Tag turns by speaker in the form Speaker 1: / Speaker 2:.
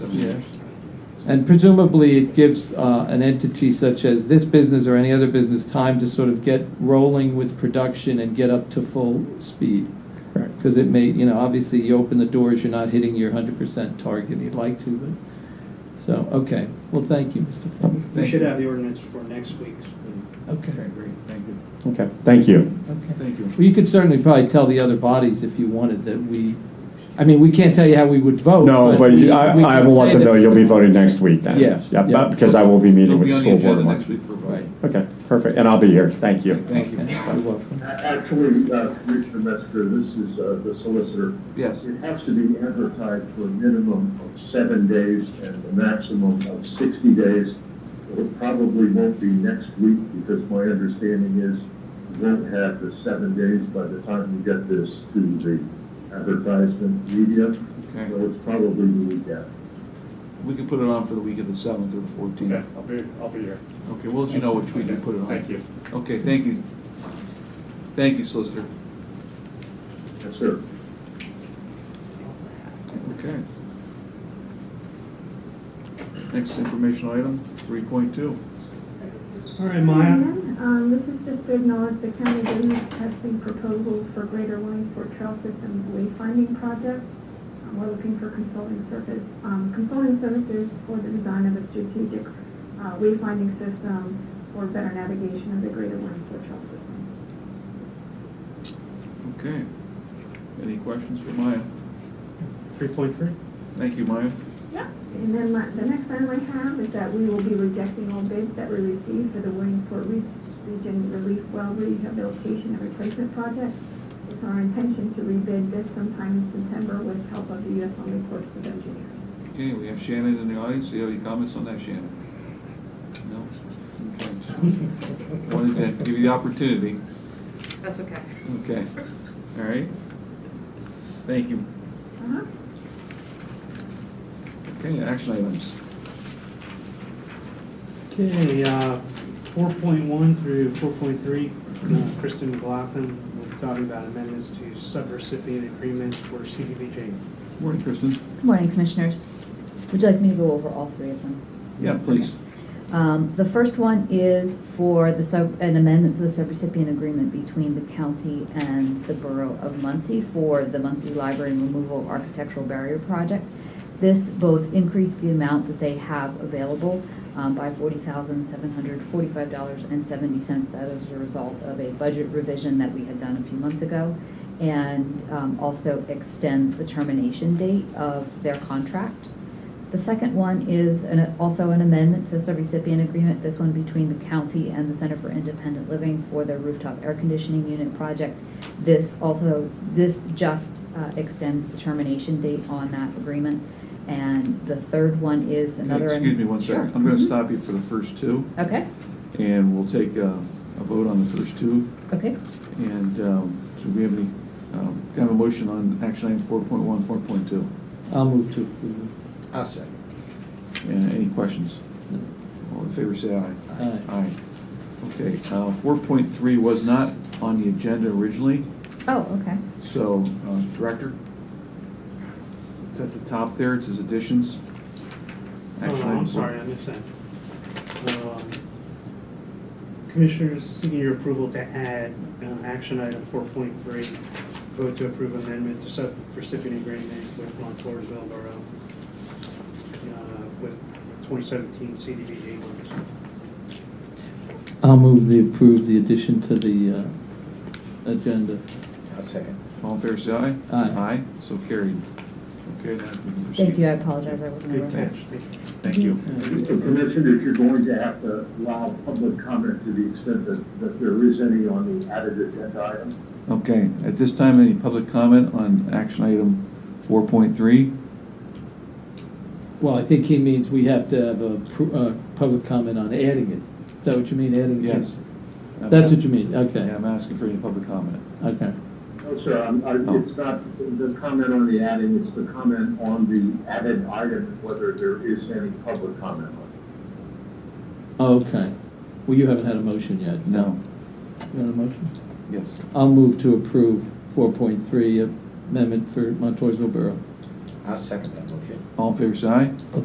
Speaker 1: Yes. And presumably, it gives uh, an entity such as this business or any other business time to sort of get rolling with production and get up to full speed.
Speaker 2: Correct.
Speaker 1: Because it may, you know, obviously, you open the doors, you're not hitting your 100% target you'd like to, but, so, okay. Well, thank you, Mr. Fleming.
Speaker 3: We should have the ordinance for next week's.
Speaker 1: Okay,
Speaker 4: Okay, great, thank you.
Speaker 2: Okay, thank you.
Speaker 1: okay.
Speaker 4: Thank you.
Speaker 1: Well, you could certainly probably tell the other bodies if you wanted that we, I mean, we can't tell you how we would vote.
Speaker 2: No, but
Speaker 1: Oh, we-
Speaker 2: I,
Speaker 1: we
Speaker 2: I
Speaker 1: can
Speaker 2: will let
Speaker 1: say
Speaker 2: them know
Speaker 1: that-
Speaker 2: you'll be voting next week then.
Speaker 1: Yeah,
Speaker 2: Yep,
Speaker 1: yeah.
Speaker 2: Because I will be meeting with the school board
Speaker 4: It'll be on the
Speaker 2: tomorrow.
Speaker 4: agenda next week for a
Speaker 1: Right.
Speaker 4: vote.
Speaker 2: Okay, perfect, and I'll be here, thank you.
Speaker 4: Thank you.
Speaker 1: Okay, You're welcome.
Speaker 5: A- Actually, uh, Commissioner Metzger, this is uh, the solicitor.
Speaker 4: Yes.
Speaker 5: It has to be advertised for a minimum of seven days and a maximum of 60 days. It probably won't be next week because my understanding is we won't have the seven days by the time we get this to the advertisement media.
Speaker 4: Okay.
Speaker 5: So it's probably the weekend.
Speaker 4: We can put it on for the week of the seventh or the
Speaker 6: Okay,
Speaker 4: fourteenth.
Speaker 6: I'll be, I'll be here.
Speaker 4: Okay, we'll let you know which week we put it on.
Speaker 6: Thank you.
Speaker 4: Okay, thank you. Thank you, Solicitor.
Speaker 5: Yes, sir.
Speaker 4: Okay. Next informational item, three point two.
Speaker 3: All right, Maya.
Speaker 7: Um, this is just to acknowledge the county business testing proposal for Greater Williamsport Trail Systems wayfinding project. Um, We're looking for consulting service, um, consulting services for the design of a strategic, uh, wayfinding system for better navigation of the Greater Williamsport Trail System.
Speaker 4: Okay. Any questions for Maya?
Speaker 6: Three point three?
Speaker 4: Thank you, Maya.
Speaker 7: And then my- the next item I have is that we will be rejecting all bids that we received for the Williamsport Re- Region Relief Well Rehabilitation and Replacement Project. It's our intention to rebid this sometime in September with help of the U.S. Army Corps of Engineers.
Speaker 4: Okay, we have Shannon in the audience. Do you have any comments on that, Shannon? No? Okay. Wanted to give you the opportunity.
Speaker 8: That's okay.
Speaker 4: Okay. All right. Thank you.
Speaker 7: Uh-huh.
Speaker 4: Okay, action items.
Speaker 3: Okay, uh, 4.1 through 4.3, uh, Kristen McLaughlin will talk about amendments to subrecipient agreement for CDBG.
Speaker 4: Morning, Kristen.
Speaker 9: Good morning, Commissioners. Would you like me to go over all three of them?
Speaker 4: Yeah, please.
Speaker 9: Um, The first one is for the sub, an amendment to the subrecipient agreement between the county and the Borough of Muncie for the Muncie Library and Removal of Architectural Barrier Project. This both increased the amount that they have available um, by $40,745.70. That is a result of a budget revision that we had done a few months ago. And um, also extends the termination date of their contract. The second one is an- also an amendment to the subrecipient agreement, this one between the county and the Center for Independent Living for their rooftop air conditioning unit project. This also, this just uh, extends the termination date on that agreement. And the third one is another.
Speaker 4: Excuse me one
Speaker 9: Sure.
Speaker 4: second. I'm going to
Speaker 9: Mhm.
Speaker 4: stop you for the first two,
Speaker 9: Okay,
Speaker 4: and we'll take uh, a vote on the first two.
Speaker 9: okay.
Speaker 4: And um, so we have any, um, kind of a motion on action item 4.1, 4.2?
Speaker 1: I'll move to approve.
Speaker 4: I'll second. And any questions? All in favor, say aye.
Speaker 1: Aye.
Speaker 4: Aye. Okay, uh, 4.3 was not on the agenda originally,
Speaker 9: Oh, okay.
Speaker 4: so, uh, Director? It's at the top there, it says additions.
Speaker 3: Oh,
Speaker 4: Action
Speaker 3: no,
Speaker 4: item
Speaker 3: I'm
Speaker 4: four-
Speaker 3: sorry, I missed that. Um, Commissioners, seeking your approval to add uh, action item 4.3, vote to approve amendment to subrecipient agreement with Montoursville Borough uh, with 2017 CDBG members.
Speaker 1: I'll move the approve the addition to the uh, agenda.
Speaker 4: All in favor, say aye.
Speaker 1: Aye.
Speaker 4: Aye, so carried. Okay, now we can proceed.
Speaker 9: Thank you, I apologize, I wasn't
Speaker 3: Good
Speaker 9: aware.
Speaker 3: catch, thank you.
Speaker 4: Thank you.
Speaker 5: The commission is you're going to have to allow public comment to the extent that, that there is any on the added agenda item.
Speaker 4: Okay, at this time, any public comment on action item 4.3?
Speaker 1: Well, I think he means we have to have a pr- uh, public comment on adding it. Is that what you mean, adding? it?
Speaker 4: Yes.
Speaker 1: That's what you mean, okay,
Speaker 4: Yeah, I'm asking for any public comment.
Speaker 1: okay.
Speaker 5: No, sir, I'm, I,
Speaker 4: Oh.
Speaker 5: it's not the comment on the adding, it's the comment on the added item, whether there is any public comment on it.
Speaker 1: Okay. Well, you haven't had a motion yet.
Speaker 4: No.
Speaker 1: You want a motion?
Speaker 4: Yes.
Speaker 1: I'll move to approve 4.3 amendment for Montoursville Borough.
Speaker 4: All in favor, say aye.